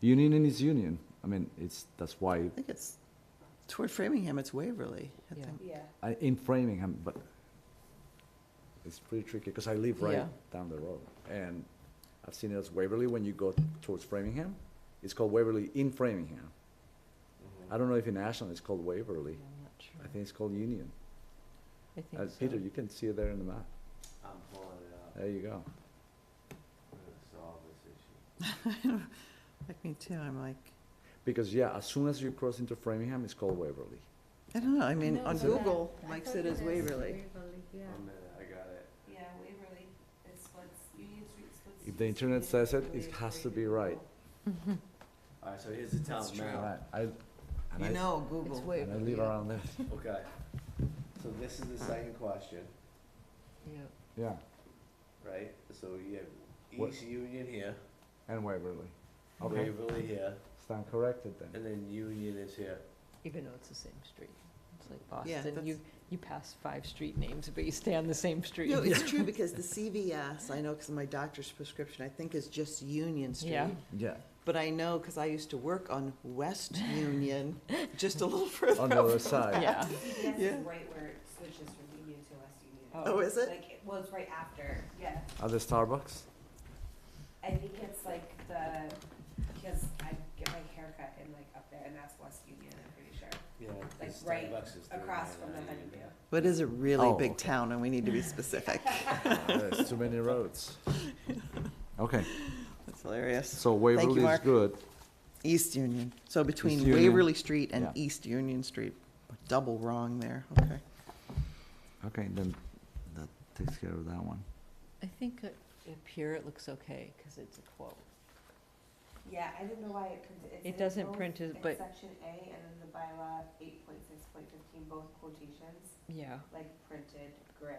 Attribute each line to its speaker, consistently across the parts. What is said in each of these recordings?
Speaker 1: Union and is union. I mean, it's, that's why,
Speaker 2: I think it's, toward Framingham, it's Waverly, I
Speaker 3: Yeah.
Speaker 2: think.
Speaker 4: Yeah.
Speaker 1: I, in Framingham, but it's pretty tricky, because I live right
Speaker 2: Yeah.
Speaker 1: down the road. And I've seen it as Waverly, when you go towards Framingham, it's called Waverly in Framingham. I don't know if in Ashland it's called Waverly.
Speaker 3: I'm not sure.
Speaker 1: I think it's called Union.
Speaker 3: I
Speaker 1: Uh,
Speaker 3: think so.
Speaker 1: Peter, you can see it there in the map.
Speaker 5: I'm pulling it up,
Speaker 1: There you go.
Speaker 5: I'm gonna solve this issue.
Speaker 2: Like me too, I'm like,
Speaker 1: Because, yeah, as soon as you cross into Framingham, it's called Waverly.
Speaker 2: I don't know, I mean,
Speaker 4: No,
Speaker 2: on
Speaker 4: it's
Speaker 2: Google,
Speaker 4: not. I
Speaker 2: Mike
Speaker 4: thought
Speaker 2: said it's
Speaker 4: was
Speaker 2: Waverly.
Speaker 4: Waverly, yeah.
Speaker 1: Um,
Speaker 5: One minute, I got it.
Speaker 4: Yeah, Waverly, it's what's, Union Street's what's.
Speaker 1: If the internet says it, it has to be right.
Speaker 5: Alright, so here's the town
Speaker 2: It's true.
Speaker 5: map,
Speaker 1: Right, I, and
Speaker 2: You
Speaker 1: I,
Speaker 2: know,
Speaker 3: It's
Speaker 2: Google.
Speaker 1: and I
Speaker 3: Waverly,
Speaker 1: live
Speaker 3: yeah.
Speaker 1: around there.
Speaker 5: okay. So this is the second question,
Speaker 3: Yeah.
Speaker 1: Yeah,
Speaker 5: right? So you have
Speaker 1: What-
Speaker 5: East Union here,
Speaker 1: and Waverly. Okay,
Speaker 5: Waverly here,
Speaker 1: stand corrected then.
Speaker 5: and then Union is here.
Speaker 3: Even though it's the same street. It's like
Speaker 2: Yeah,
Speaker 3: Boston, you, you pass five street names, but you stay on the same street.
Speaker 2: No, it's true, because the CVS, I know, because my doctor's prescription, I think is just Union Street.
Speaker 3: Yeah.
Speaker 1: Yeah,
Speaker 2: But I know, because I used to work on West Union, just a little further.
Speaker 1: on the
Speaker 2: over.
Speaker 1: other side.
Speaker 3: Yeah.
Speaker 4: CVS
Speaker 2: Yeah.
Speaker 4: is right where it switches from Union to West Union.
Speaker 3: Oh.
Speaker 2: Oh, is it?
Speaker 4: Like, it well, it's right after, yeah.
Speaker 1: At the Starbucks?
Speaker 4: I think it's like the, because I get my hair cut and like up there, and that's West Union, I'm pretty sure.
Speaker 5: Yeah.
Speaker 4: Like
Speaker 5: because
Speaker 4: right
Speaker 5: Starbucks is doing
Speaker 4: across
Speaker 5: that
Speaker 4: from the
Speaker 5: on Union.
Speaker 4: Honeydale.
Speaker 2: But it is a really
Speaker 1: Oh,
Speaker 2: big
Speaker 1: okay.
Speaker 2: town, and we need to be specific.
Speaker 1: There's Uh, too many roads. Okay,
Speaker 2: That's hilarious.
Speaker 1: so Waverly is
Speaker 2: Mark.
Speaker 1: good.
Speaker 2: East Union, so
Speaker 1: East
Speaker 2: between
Speaker 1: Union.
Speaker 2: Waverly Street and
Speaker 1: Yeah.
Speaker 2: East Union Street. Double wrong there, okay.
Speaker 1: Okay, then that takes care of that one.
Speaker 3: I think up up here it looks okay, because it's a quote.
Speaker 4: Yeah, I didn't know why it printed, it's.
Speaker 3: It
Speaker 4: in
Speaker 3: doesn't
Speaker 4: both-
Speaker 3: print it,
Speaker 4: it's
Speaker 3: but-
Speaker 4: Section A and then the bylaw eight point six point fifteen, both quotations,
Speaker 3: Yeah.
Speaker 4: like printed gray,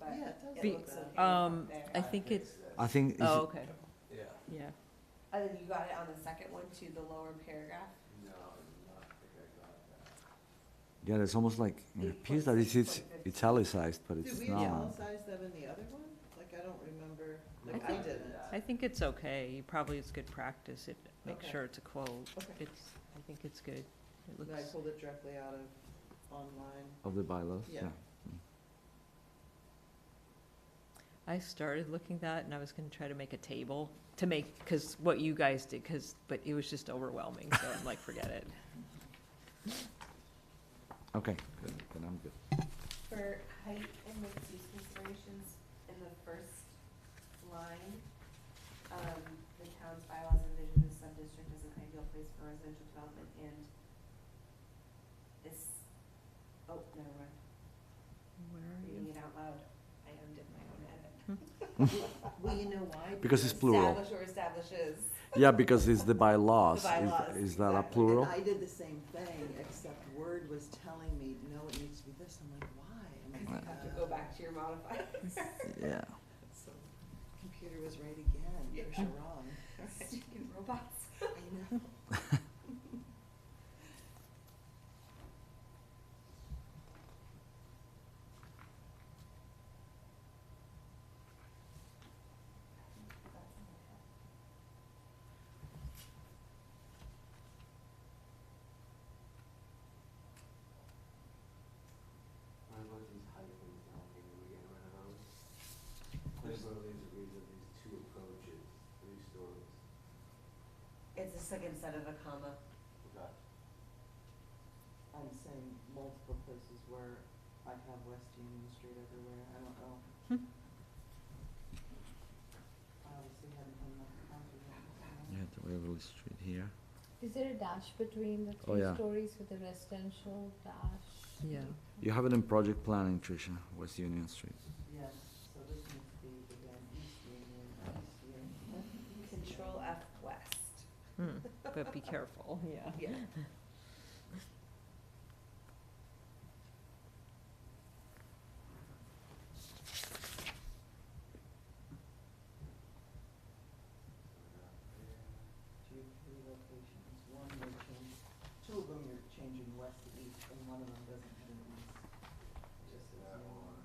Speaker 4: but
Speaker 2: Yeah, it does
Speaker 4: it
Speaker 3: Be-
Speaker 4: looks okay
Speaker 3: um,
Speaker 4: up there.
Speaker 3: I think it's,
Speaker 5: fixed
Speaker 1: I think, if
Speaker 3: oh,
Speaker 1: you-
Speaker 3: okay,
Speaker 5: it. Yeah,
Speaker 3: yeah.
Speaker 4: And Oh, then you got it on the second one too, the lower paragraph.
Speaker 5: no, I don't think I got that.
Speaker 1: yeah, it's almost like, it appears that it's- it's italicized, but it's not.
Speaker 2: them in the other one? Like, I don't remember,
Speaker 3: Like, I I think it's okay. You Probably it's good practice if, make
Speaker 2: Okay.
Speaker 3: sure it's a quote.
Speaker 2: Okay.
Speaker 3: It's, I think it's good. It looks,
Speaker 2: pulled it directly out of online.
Speaker 1: Of the bylaws,
Speaker 2: Yeah.
Speaker 1: yeah.
Speaker 3: I started looking that and I was gonna try to make a table to make, because what you guys did, because, but it was just overwhelming, so I'm like, forget it.
Speaker 1: Okay, good, then I'm good.
Speaker 4: For height and mixed use considerations in the first line, um, the town's bylaws envision the sub-district as an ideal place for residential development and this, oh, never mind,
Speaker 3: Where
Speaker 4: I'm
Speaker 3: are
Speaker 4: reading
Speaker 3: you?
Speaker 4: it out loud. I undid my own edit.
Speaker 2: Well, you know why?
Speaker 1: Because it's plural.
Speaker 4: Establish or establishes.
Speaker 1: Yeah, because it's the bylaws.
Speaker 4: The
Speaker 1: Is-
Speaker 4: bylaws,
Speaker 1: Is that a
Speaker 4: exactly.
Speaker 1: plural?
Speaker 2: And I did the same thing, except Word was telling me, no, it needs to be this. I'm like, why? I'm
Speaker 4: You
Speaker 2: like,
Speaker 4: have to
Speaker 2: uh,
Speaker 4: go back to your modifier.
Speaker 1: Yeah.
Speaker 2: so Computer was right again, for
Speaker 4: Yeah.
Speaker 2: wrong.
Speaker 4: Stupid robots.
Speaker 2: I know.
Speaker 5: What about these height things down here, are we getting rid of those? Clearly, there's a reason these two approaches, three stories.
Speaker 4: It's the second set of a comma.
Speaker 5: Okay.
Speaker 2: I'm saying multiple places where I have West Union Street everywhere, I don't know.
Speaker 3: Hmm.
Speaker 2: I obviously haven't done enough counting yet, so-
Speaker 1: Yeah, the Waverly Street here.
Speaker 6: Is there a dash between the
Speaker 1: Oh,
Speaker 6: three
Speaker 1: yeah.
Speaker 6: stories with the residential dash?
Speaker 3: Yeah.
Speaker 1: You have it in project planning, Tricia, West Union Street.
Speaker 2: Yes, so this needs to be again, East Union, West Union.
Speaker 4: Control F west.
Speaker 3: Hmm, But be careful, yeah.
Speaker 4: Yeah.
Speaker 2: Two, three locations, one you're changing, two of them you're changing west to east, and one of them doesn't have an east. It Just says
Speaker 5: That
Speaker 2: no.
Speaker 5: one.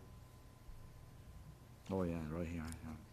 Speaker 1: Oh, yeah, right here, yeah.